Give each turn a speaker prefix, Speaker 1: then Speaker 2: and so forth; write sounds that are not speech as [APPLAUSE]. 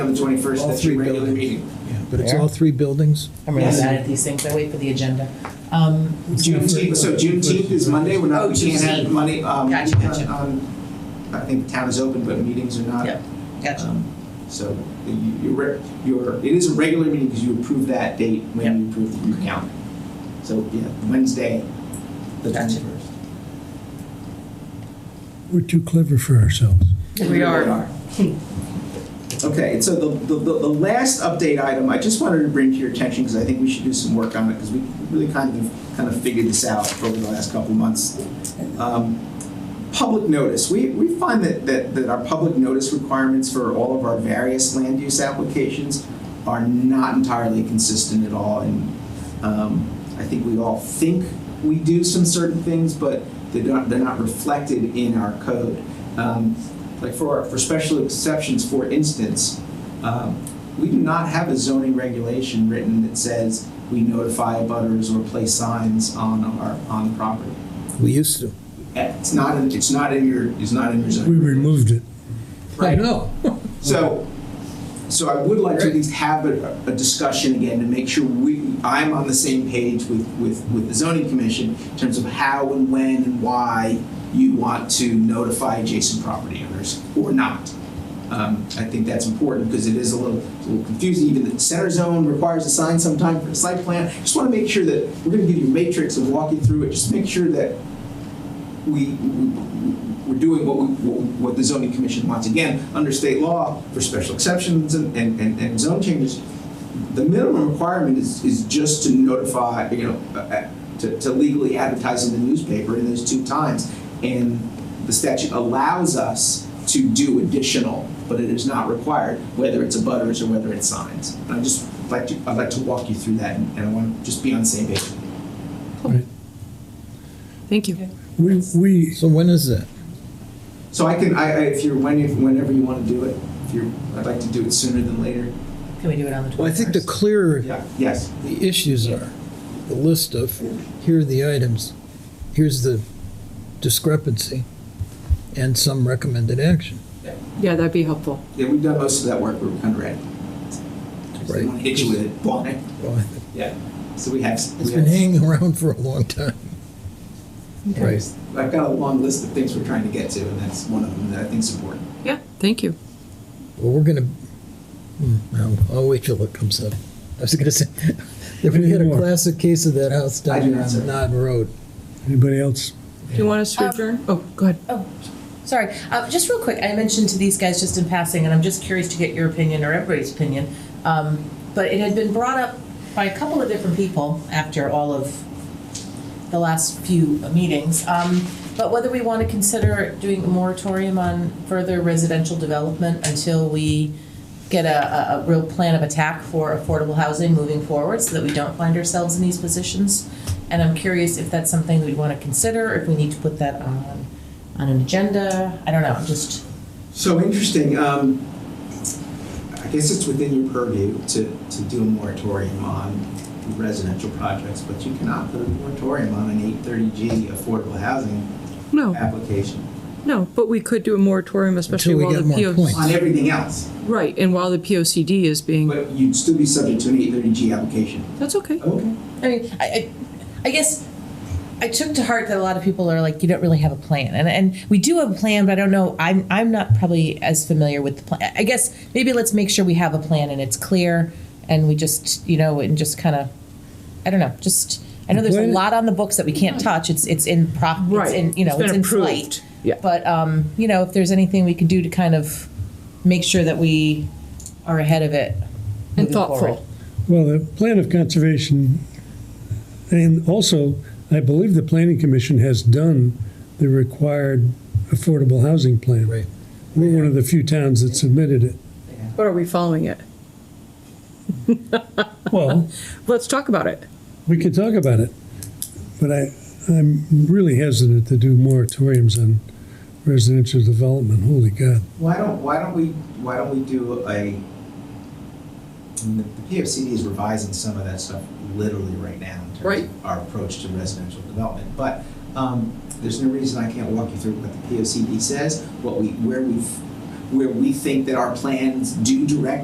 Speaker 1: On the 21st,
Speaker 2: All
Speaker 1: that's your
Speaker 2: three
Speaker 1: regular
Speaker 2: buildings.
Speaker 1: meeting.
Speaker 2: Yeah, but it's
Speaker 3: There.
Speaker 2: all three buildings?
Speaker 3: I'm really
Speaker 1: Yes.
Speaker 3: bad at these things. I wait for the agenda. Um,
Speaker 1: Juneteenth, so Juneteenth is Monday, we're
Speaker 3: Oh,
Speaker 1: not, we can't
Speaker 3: Juneteenth.
Speaker 1: have money, um,
Speaker 3: Gotcha, gotcha.
Speaker 1: on, I think town is open, but meetings are not.
Speaker 3: Yep, gotcha.
Speaker 1: Um, So you, you're, re- you're, it is a regular meeting because you approve that date
Speaker 3: Yep.
Speaker 1: when you approve the new count. So, yeah, Wednesday, the
Speaker 3: Gotcha.
Speaker 1: 21st.
Speaker 2: We're too clever for ourselves.
Speaker 3: We are.
Speaker 1: Okay, and so the, the, the the last update item, I just wanted to bring to your attention, because I think we should do some work on it, because we really kind of, kind of figured this out over the last couple of months. Um, Public notice, we, we find that, that, that our public notice requirements for all of our various land use applications are not entirely consistent at all, and, um, I think we all think we do some certain things, but they're not, they're not reflected in our code. Um, like for, for special exceptions, for instance, um, we do not have a zoning regulation written that says we notify abutters or place signs on our, on property.
Speaker 2: We used to.
Speaker 1: It's not, in- it's not in your, it's not in your
Speaker 2: We
Speaker 1: zoning.
Speaker 2: removed it.
Speaker 1: Right.
Speaker 2: know.
Speaker 1: So, so I would like to at least have a, a discussion again to make sure we, I'm on the same page with, with, with the zoning commission in terms of how and when and why you want to notify adjacent property owners or not. Um, I think that's important because it is a little, a little confusing. Even the center zone requires a sign sometime for the site plan. Just want to make sure that, we're going to give you a matrix and walk you through it. Just make sure that we, we- we're doing what, we, what what the zoning commission wants. Again, under state law, for special exceptions and, and, and- and zone changes, the minimum requirement is, is just to notify, you know, uh, uh, to, to legally advertise in the newspaper in those two times. And the statute allows us to do additional, but it is not required, whether it's abutters or whether it's signs. And I just like to, I'd like to walk you through that and and I want to just be on the same page.
Speaker 4: Thank you.
Speaker 2: We, we. So when is that?
Speaker 1: So I can, I, I if you're, when, if- whenever you want to do it, if you're, I'd like to do it sooner than later.
Speaker 3: Can we do it on the 21st?
Speaker 2: Well, I think the clearer
Speaker 1: Yeah, yes.
Speaker 2: the issues are, the list of, here are the items, here's the discrepancy, and some recommended action.
Speaker 4: Yeah, that'd be helpful.
Speaker 1: Yeah, we've done most of that work, we're kind of ready. Just
Speaker 2: Right.
Speaker 1: want to hit you with it, Blunt.
Speaker 2: Well, I think
Speaker 1: Yeah, so we have. we
Speaker 2: It's been
Speaker 1: have-
Speaker 2: hanging [LAUGHS] around for a long time. Right.
Speaker 1: I've got a long list of things we're trying to get to, and that's one of them that I think's important.
Speaker 4: Yeah, thank you.
Speaker 2: Well, we're gonna, hmm, I'll, I'll wait till it comes up. I was gonna say, [LAUGHS] if we had a classic case of that house
Speaker 1: I do
Speaker 2: down
Speaker 1: not, sir.
Speaker 2: on Nod Road.
Speaker 5: Anybody else?
Speaker 4: Do you want us to
Speaker 3: Um,
Speaker 4: adjourn? Oh, go ahead.
Speaker 3: Sorry, uh, just real quick, I mentioned to these guys just in passing, and I'm just curious to get your opinion or everybody's opinion. Um, but it had been brought up by a couple of different people after all of the last few meetings. Um, but whether we want to consider doing a moratorium on further residential development until we get a, a, a real plan of attack for affordable housing moving forward so that we don't find ourselves in these positions. And I'm curious if that's something we'd want to consider, if we need to put that on, on an agenda. I don't know, just,
Speaker 1: So interesting, um, I guess it's within your purview to, to do a moratorium on residential projects, but you cannot put a moratorium on an eight thirty G affordable housing
Speaker 4: No,
Speaker 1: application,
Speaker 4: no, but we could do a moratorium, especially
Speaker 2: Until
Speaker 4: while
Speaker 2: we
Speaker 4: the
Speaker 2: get more points.
Speaker 4: POC.
Speaker 1: on everything else.
Speaker 4: Right, and while the POCD is being,
Speaker 1: But you'd still be subject to an eight thirty G application.
Speaker 4: that's okay.
Speaker 1: Okay.
Speaker 3: I mean, I, I, I guess I took to heart that a lot of people are like, you don't really have a plan, and and we do have a plan, but I don't know. I'm I'm not probably as familiar with the plan. I guess maybe let's make sure we have a plan and it's clear, and we just you know and just kind of, I don't know, just. I know there's a
Speaker 2: Plan-
Speaker 3: lot on the books that we can't touch. It's it's in prop. It's
Speaker 4: Right.
Speaker 3: in you know
Speaker 4: It's
Speaker 3: it's,
Speaker 4: been
Speaker 3: in
Speaker 4: approved.
Speaker 3: flight.
Speaker 4: Yeah.
Speaker 3: But um, you know, if there's anything we could do to kind of make sure that we are ahead of it
Speaker 4: And
Speaker 3: moving forward.
Speaker 4: thoughtful.
Speaker 5: Well, the plan of conservation, and also, I believe the planning commission has done the required affordable housing plan.
Speaker 2: Right.
Speaker 5: We're one of the few towns that submitted it.
Speaker 4: But are we following it?
Speaker 5: Well,
Speaker 4: Let's talk about it.
Speaker 5: we could talk about it, but I, I'm really hesitant to do moratoriums on residential development. Holy God.
Speaker 1: Why don't, why don't we, why don't we do a, I mean, the the PFCD is revising some of that stuff literally right now in terms
Speaker 4: Right.
Speaker 1: of our approach to residential development. But, um, there's no reason I can't walk you through what the PFCD says, what we, where we've, where we think that our plans do direct